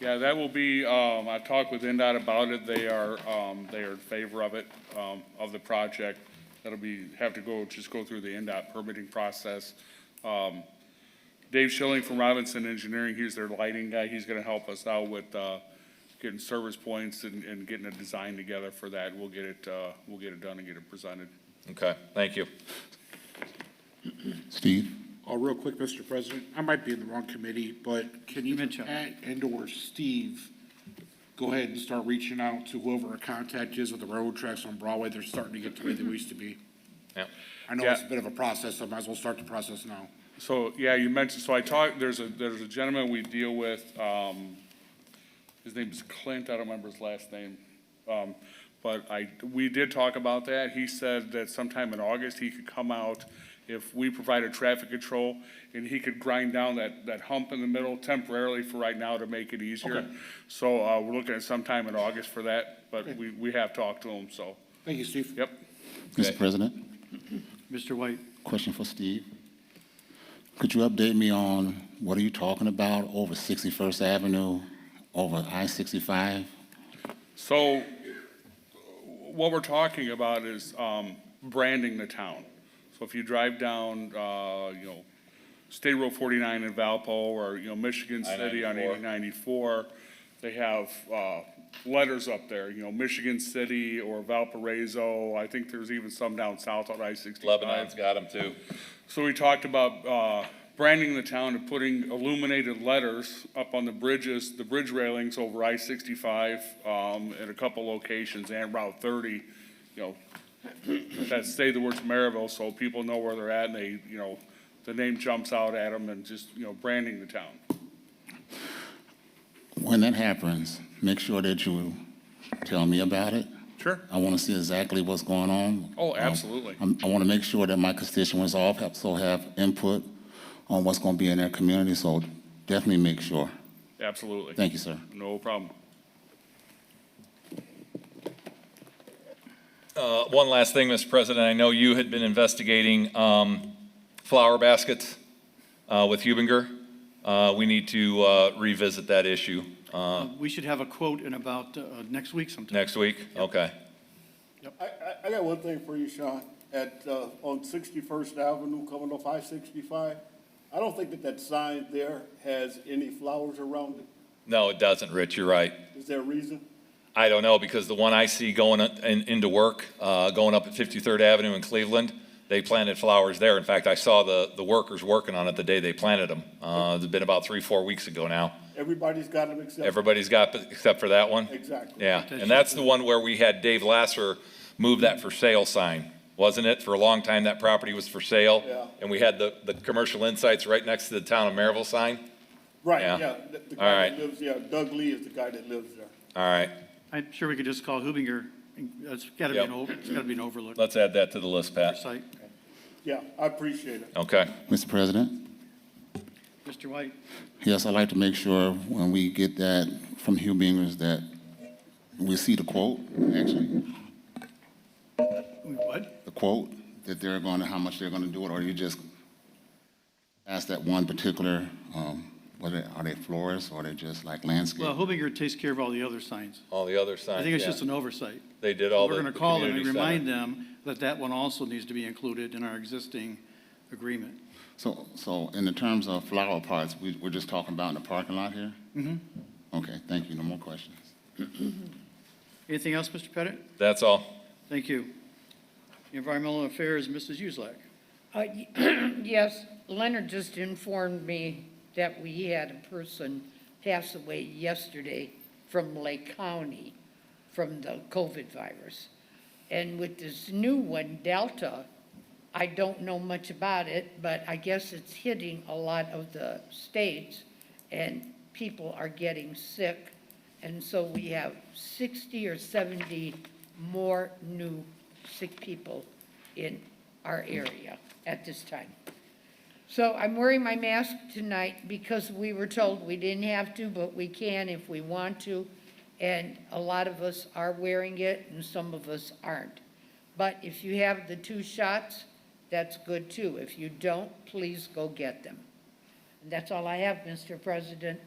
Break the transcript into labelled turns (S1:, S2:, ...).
S1: Yeah, that will be, um, I talked with NDOT about it. They are, um, they are in favor of it, um, of the project. That'll be, have to go, just go through the NDOT permitting process. Um, Dave Schilling from Robinson Engineering, he's their lighting guy. He's gonna help us out with, uh, getting service points and, and getting a design together for that. We'll get it, uh, we'll get it done and get it presented.
S2: Okay, thank you.
S3: Steve?
S4: Oh, real quick, Mr. President, I might be in the wrong committee, but can you,
S5: Mitchell.
S4: Pat and/or Steve, go ahead and start reaching out to whoever our contact is with the railroad tracks on Broadway? They're starting to get the way they used to be.
S2: Yeah.
S4: I know it's a
S1: Yeah.
S4: bit of a process, so I might as well start the process now.
S1: So, yeah, you mentioned, so I talked, there's a, there's a gentleman we deal with, um, his name is Clint, I don't remember his last name. Um, but I, we did talk about that. He said that sometime in August, he could come out if we provided traffic control, and he could grind down that, that hump in the middle temporarily for right now to make it easier. So, uh, we're looking at sometime in August for that, but we, we have talked to him, so,
S4: Thank you, Steve.
S1: yep.
S2: Okay.
S3: Mr. President,
S5: Mr. White,
S3: question for Steve. Could you update me on what are you talking about over 61st Avenue, over I-65?
S1: So what we're talking about is um, branding the town. So if you drive down, uh, you know, State Road 49 in Valpo or, you know, Michigan City on
S2: 94.
S1: 894, they have uh, letters up there, you know, Michigan City or Valparaiso. I think there's even some down south on I-65.
S2: Lebanon's got them too.
S1: So we talked about uh, branding the town and putting illuminated letters up on the bridges, the bridge railings over I-65 um, in a couple locations and Route 30, you know, that say the words Maryville, so people know where they're at and they, you know, the name jumps out at them and just, you know, branding the town.
S3: When that happens, make sure that you tell me about it.
S1: Sure.
S3: I want to see exactly what's going on.
S1: Oh,
S3: Um,
S1: absolutely.
S3: I'm- I want to make sure that my constituents all have- also have input on what's going to be in their community, so definitely make sure.
S1: Absolutely.
S3: Thank you, sir.
S1: No problem.
S2: Uh, One last thing, Mr. President, I know you had been investigating um, flower baskets uh, with Hubinger. Uh, We need to uh, revisit that issue uh,
S5: we should have a quote in about uh, next week sometime.
S2: next week. Okay,
S6: I, I, I got one thing for you, Sean, at, uh, on Sixty-first Avenue coming off I-65. I don't think that that sign there has any flowers around it.
S2: no, it doesn't, Rich, you're right.
S6: Is there a reason?
S2: I don't know, because the one I see going in- into work, uh, going up at 53rd Avenue in Cleveland, they planted flowers there. In fact, I saw the the workers working on it the day they planted them. Uh, It's been about three, four weeks ago now.
S6: Everybody's got them except.
S2: Everybody's got, except for that one?
S6: Exactly.
S2: Yeah, and that's the one where we had Dave Lasser move that for sale sign, wasn't it? For a long time, that property was for sale.
S6: Yeah.
S2: And we had the, the commercial insights right next to the town of Maryville sign.
S6: Right,
S2: Yeah.
S6: yeah. The- The
S2: All
S6: guy
S2: right.
S6: that lives, yeah, Doug Lee is the guy that lives there.
S2: All right,
S5: I'm sure we could just call Hubinger, and it's gotta be an
S2: Yep.
S5: over, it's gotta be an overlook
S2: let's add that to the list, Pat.
S5: site.
S6: Yeah, I appreciate it.
S2: Okay,
S3: Mr. President?
S5: Mr. White,
S3: Yes, I'd like to make sure when we get that from Hugh Bingers that we see the quote, actually,
S5: what?
S3: the quote, that they're going to, how much they're going to do it, or you just ask that one particular, um, what are, are they florists, or are they just like landscape?
S5: Well, Hubinger takes care of all the other signs.
S2: all the other
S5: I
S2: signs,
S5: think it's just
S2: yeah.
S5: an oversight.
S2: They did all
S5: We're
S2: the
S5: gonna
S2: the
S5: call them and
S2: community
S5: remind
S2: center.
S5: them that that one also needs to be included in our existing agreement.
S3: So, so in the terms of flower pots, we, we're just talking about in the parking lot here? Mm-hmm. Okay, thank you, no more questions.
S5: Anything else, Mr. Pettit?
S2: That's all.
S5: Thank you. Environmental Affairs, Mrs. Uselak.
S7: Uh, y- Yes, Leonard just informed me that we had a person pass away yesterday from Lake County from the COVID virus. And with this new one, Delta, I don't know much about it, but I guess it's hitting a lot of the states and people are getting sick. And so we have 60 or 70 more new sick people in our area at this time. So I'm wearing my mask tonight because we were told we didn't have to, but we can if we want to. And a lot of us are wearing it and some of us aren't. But if you have the two shots, that's good too. If you don't, please go get them. And that's all I have, Mr. President,